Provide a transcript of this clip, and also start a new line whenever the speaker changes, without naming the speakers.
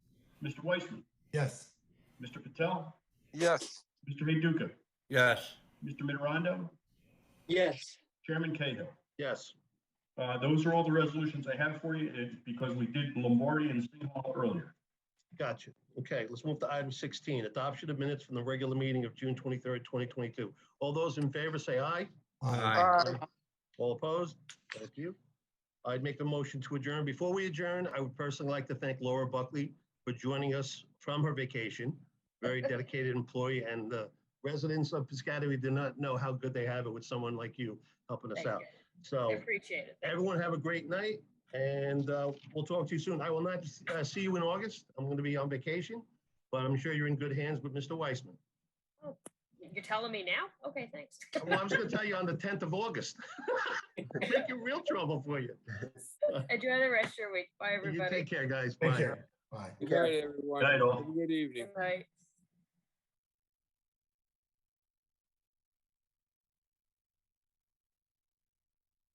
Mr. Weissman,
Yes.
Mr. Patel,
Yes.
Mr. Heyduka,
Yes.
Mr. Mitterondo,
Yes.
Chairman Cahill.
Yes.
Uh, Those are all the resolutions I have for you It's because we did Lombardi and Singhall earlier.
Got you. Okay, let's move to item 16, adoption of minutes from the regular meeting of June 23rd, 2022. All those in favor say aye.
Aye.
Aye.
All opposed? Thank you. I'd make a motion to adjourn. Before we adjourn, I would personally like to thank Laura Buckley for joining us from her vacation. Very dedicated employee and the residents of Piscataway do not know how good they have it with someone like you helping us
Thank
out. Oh.
you. I
So
appreciate it.
everyone have a great night and uh, we'll talk to you soon. I will not uh, see you in August. I'm going to be on vacation, but I'm sure you're in good hands with Mr. Weissman.
You're telling me now? Okay, thanks.
Oh, Well, I'm just going to tell you on the 10th of August. Make you real trouble for you.
Enjoy the rest of your week. Bye,
You
everybody.
take care, guys.
Take
Bye.
care. Bye.
Good night, everyone.
Good night, all.
Have a Good evening.
Bye.